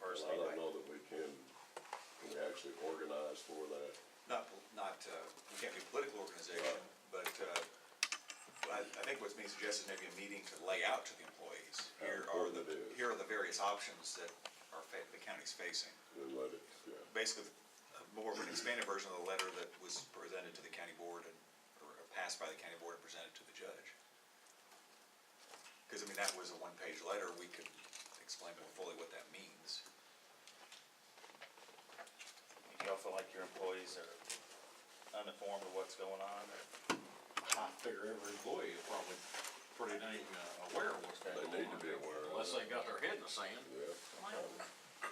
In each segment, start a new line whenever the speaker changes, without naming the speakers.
first
I don't
meeting.
know that we can, can we actually organize for that?
Not, pol- not, uh, we can't be a political organization, but uh, I I think what's being suggested is maybe a meeting to lay out to the employees.
How
Here are the,
important it is.
here are the various options that are, fa- the county's facing.
And let it, yeah,
Basically, a more of an expanded version of the letter that was presented to the county board and, or passed by the county board and presented to the judge. Because, I mean, that was a one-page letter, we could explain more fully what that means.
Do y'all feel like your employees are uninformed of what's going on?
I figure every employee is probably pretty dang uh, aware of what's going on.
They need to be aware of
Unless they got their head in the sand.
yeah.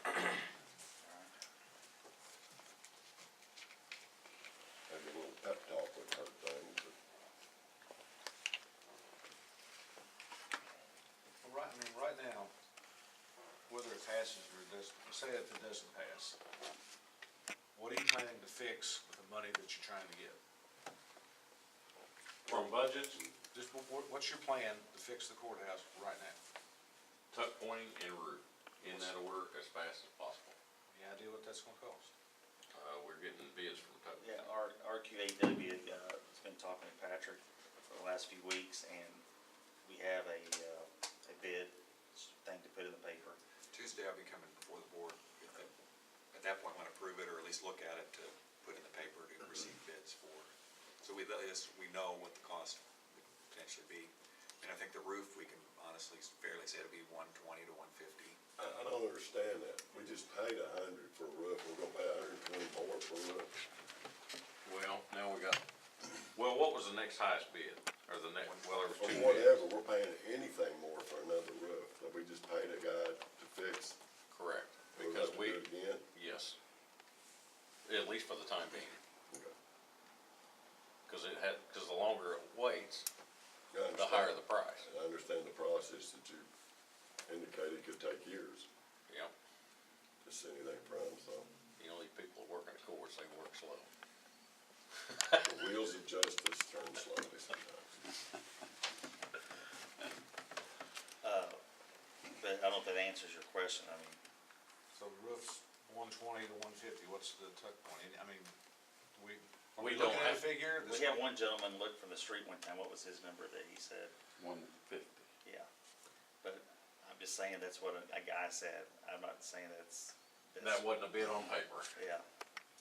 Maybe a little pep talk would hurt things, but
Well, Right, I mean, right now, whether it passes or doesn't, say if it doesn't pass, what are you planning to fix with the money that you're trying to get?
From budgets,
Just what- what- what's your plan to fix the courthouse right now?
tuck pointing and root, in that order as fast as possible.
Any idea what that's gonna cost?
Uh, we're getting bids from tuck.
Yeah, R, RQAW, uh, has been talking to Patrick for the last few weeks, and we have a, uh, a bid thing to put in the paper.
Tuesday, I'll be coming before the board. If it- At that point, want to approve it or at least look at it to put in the paper to receive bids for. So we, at least we know what the cost would potentially be. And I think the roof, we can honestly fairly say it'll be one twenty to one fifty.
I, I don't understand that. We just paid a hundred for a roof, we're gonna pay a hundred and twenty more for a roof.
Well, now we got, well, what was the next highest bid, or the next, well, there was
Or
two bids.
whatever, we're paying anything more for another roof, that we just paid a guy to fix.
Correct,
we're gonna
because
have to
we,
do it Again.
yes. At least for the time being,
Okay.
cause it had, cause the longer it waits,
I
the higher
understand.
the price,
I understand the process that you indicated could take years,
yeah.
just anything from, so.
You know, these people that work in the courts, they work slow.
The wheels of justice turn slowly sometimes.
Uh, but I don't know if that answers your question, I mean,
So the roof's one twenty to one fifty, what's the tuck point? And, I mean, we, are
We
we
don't
looking at a
have-
figure?
we
that's-
had one gentleman look from the street one time, what was his number that he said?
One fifty.
Yeah, but I'm just saying that's what a, a guy said, I'm not saying that's. that's-
That wasn't a bid on paper.
Yeah,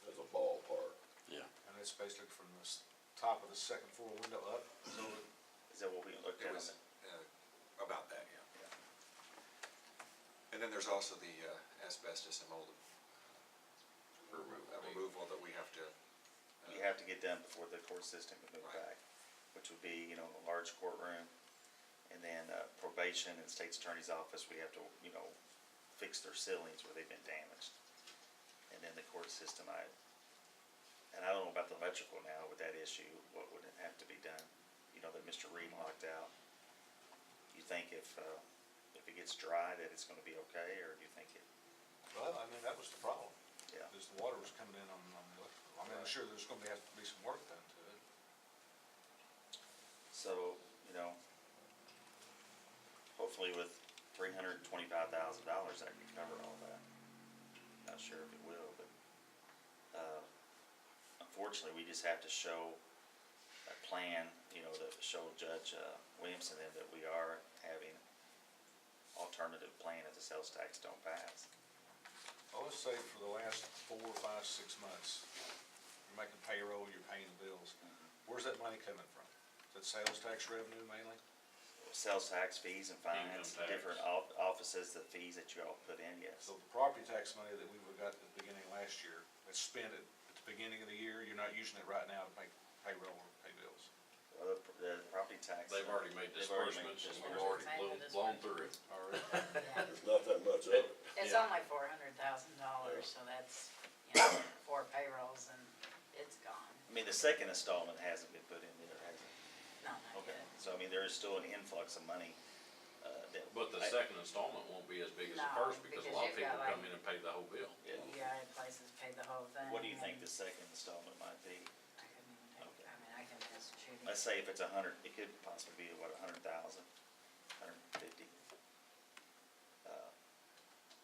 As a ballpark.
Yeah.
And it's basically from the s- top of the second floor window up, so
is that what we looked
It
at? on
was
that?
uh, about that, yeah.
Yeah.
And then there's also the uh, asbestos and mold uh,
Removal.
removal that we have to.
we have to get done before the court system can move
Right.
back, which would be, you know, a large courtroom. And then uh, probation and state's attorney's office, we have to, you know, fix their ceilings where they've been damaged. And then the court system, I, and I don't know about the electrical now with that issue, what would have to be done? You know, that Mr. Reed locked out. You think if, uh, if it gets dry that it's gonna be okay, or do you think it,
well, I mean, that was the problem.
yeah?
Because the water was coming in on, on the, electrical. I mean, I'm sure there's gonna be, have to be some work done to it.
So, you know, hopefully with three hundred and twenty-five thousand dollars, I can cover all that. Not sure if it will, but, uh, unfortunately, we just have to show a plan, you know, to show Judge, uh, Williamson then that we are having alternative plan if the sales tax don't pass.
I would say for the last four, five, six months, you're making payroll, you're paying the bills. Where's that money coming from? Is that sales tax revenue mainly?
Sales tax fees and fines,
Income tax. Oh.
different of- offices, the fees that you all put in, yes.
So the property tax money that we would've got at the beginning of last year, that's spent at, at the beginning of the year, you're not using it right now to make payroll or pay bills.
Uh, The property tax.
They've already made
They've already made
disbursements and
disbursements.
we've already blown, blown through it.
There's not that much of it.
It's
Yeah.
only four hundred thousand dollars, so that's, you know, four payrolls and it's gone.
I mean, the second installment hasn't been put in there, has it?
No, not
Okay,
yet.
so I mean, there is still an influx of money, uh, that.
But the
I-
second installment won't be as big as the
No,
first because a
because
lot of
you've got
people come
like-
in and pay the whole bill.
yeah.
You got E places pay the whole thing.
What do you
and
think the second installment might be?
I couldn't even think- I mean, I can just shoot it.
Let's say if it's a hundred, it could possibly be, what, a hundred thousand, hundred and fifty?